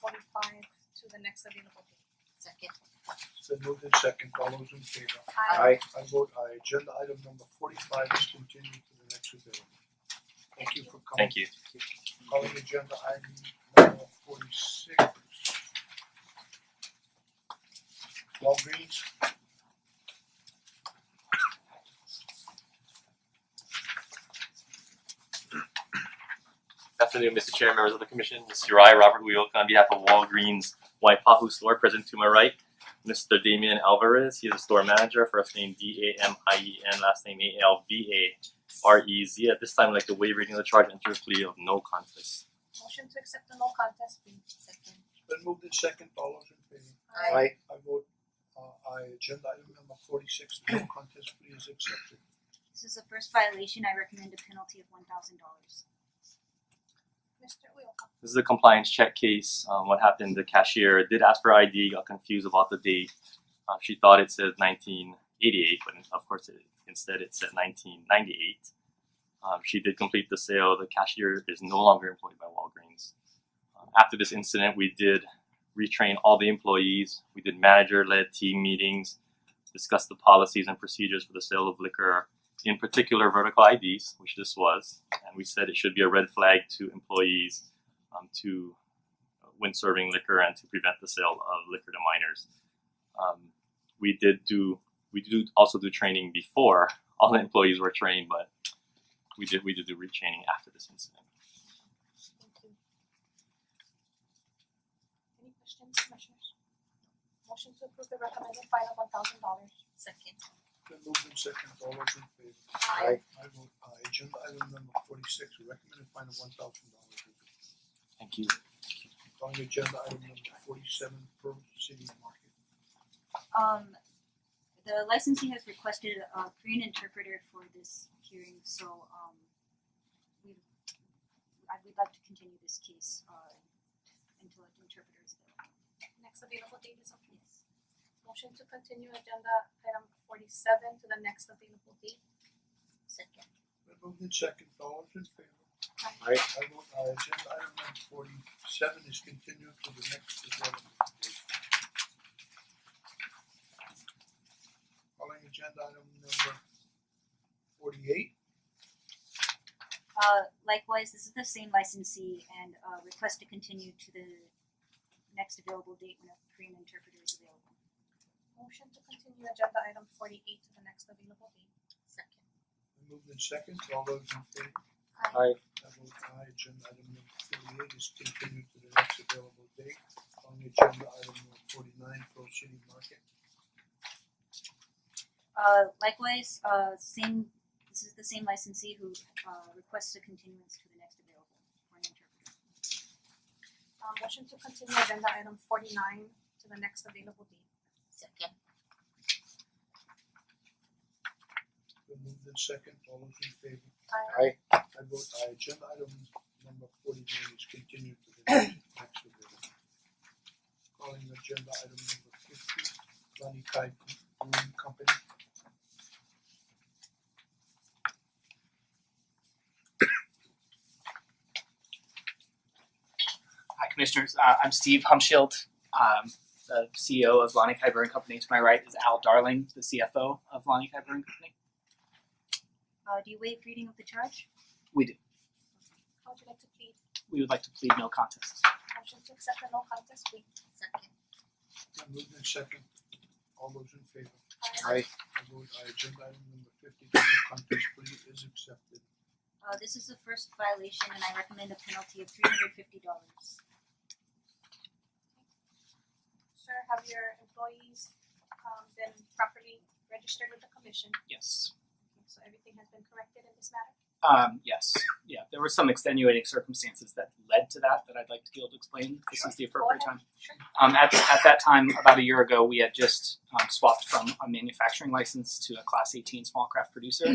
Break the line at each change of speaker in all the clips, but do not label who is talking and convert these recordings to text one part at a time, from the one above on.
forty five to the next available date.
Second.
Then moved in second, all those in favor?
Aye.
I vote aye, agenda item number forty five is continued to the next available. Thank you for coming.
Thank you.
Calling agenda item number forty six. Walgreens,
Afternoon, Mr. Chair, members of the commission. This is Uri Robert Uyoka on behalf of Walgreens Waipahu store present to my right. Mr. Damian Alvarez, he is a store manager, first name D A M I E N, last name A L V A R E Z. At this time, I'd like to waive reading of the charge and enter a plea of no contest.
Motion to accept the no contest plea.
Second.
then moved in second, all those in favor?
Aye.
I vote uh aye, agenda item number forty six, no contest plea is accepted.
This is the first violation. I recommend a penalty of one thousand dollars.
Mister Uyoka,
This is a compliance check case. Um, what happened, the cashier did ask for ID, got confused about the date. Uh, she thought it said 1988, but of course, it, instead it said 1998. Um, she did complete the sale. The cashier is no longer employed by Walgreens. Um, after this incident, we did retrain all the employees. We did manager led team meetings, discussed the policies and procedures for the sale of liquor, in particular, vertical IDs, which this was. And we said it should be a red flag to employees um, to uh, when serving liquor and to prevent the sale of liquor to minors. Um, we did do we do also do training before all the employees were trained, but we did we did do retraining after this incident.
thank you. Any questions, commissioners? Motion to approve the recommended fine of one thousand dollars.
Second.
Then moved in second, all those in favor?
Aye.
I vote aye, agenda item number forty six, recommended fine of one thousand dollars.
Thank you.
Calling agenda item number forty seven, Pearl City Market.
Um, the licensee has requested a Korean interpreter for this hearing, so um, we I would like to continue this case uh until an interpreter is available.
Next available date is okay. Motion to continue agenda item forty seven to the next available date.
Second.
Then moved in second, all those in favor?
Aye.
I vote aye, agenda item number forty seven is continued to the next agenda. date. Calling agenda item number forty eight,
Uh, likewise, this is the same licensee and uh request to continue to the next available date when a Korean interpreter is available.
Motion to continue agenda item forty eight to the next available date.
Second.
then moved in second, all those in favor?
Aye.
I vote aye, agenda item number forty-eight is continued to the next available date. On agenda item number forty-nine, Pearl City Market.
Uh likewise, uh same, this is the same licensee who uh requests a continuance to the next available for an interpreter.
Uh motion to continue agenda item forty nine to the next available date.
Second.
Been moved in second, all those in favor?
Aye.
I vote aye, agenda item number forty-nine is continued to the next next available. Calling agenda item number fifty, Lani Kai Brewing Company.
Hi, Commissioners. Uh, I'm Steve Humschild, um, the CEO of Lonnie Kai Brewing Company. To my right is Al Darling, the CFO of Lonnie Kai Brewing Company.
Uh do you waive reading of the charge?
We do.
How would you like to plead?
We would like to plead no contest.
Motion to accept the no contest plea.
Second.
Been moved in second, all those in favor?
Aye.
I vote aye, agenda item number fifty, the no contest plea is accepted.
Uh this is the first violation and I recommend a penalty of three hundred fifty dollars.
Sir, have your employees um been properly registered with the commission?
Yes.
Okay, So everything has been corrected in this matter?
Um, yes. Yeah. There were some extenuating circumstances that led to that that I'd like to be able to explain. This is the
Go
appropriate
ahead.
time.
Sure.
Um, at, at that time, about a year ago, we had just um, swapped from a manufacturing license to a Class 18 small craft producer.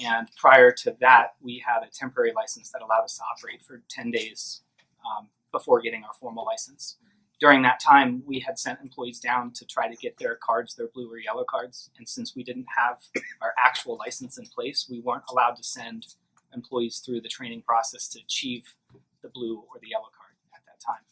And prior to that, we had a temporary license that allowed us to operate for 10 days um, before getting our formal license. During that time, we had sent employees down to try to get their cards, their blue or yellow cards. And since we didn't have our actual license in place, we weren't allowed to send employees through the training process to achieve the blue or the yellow card at that time.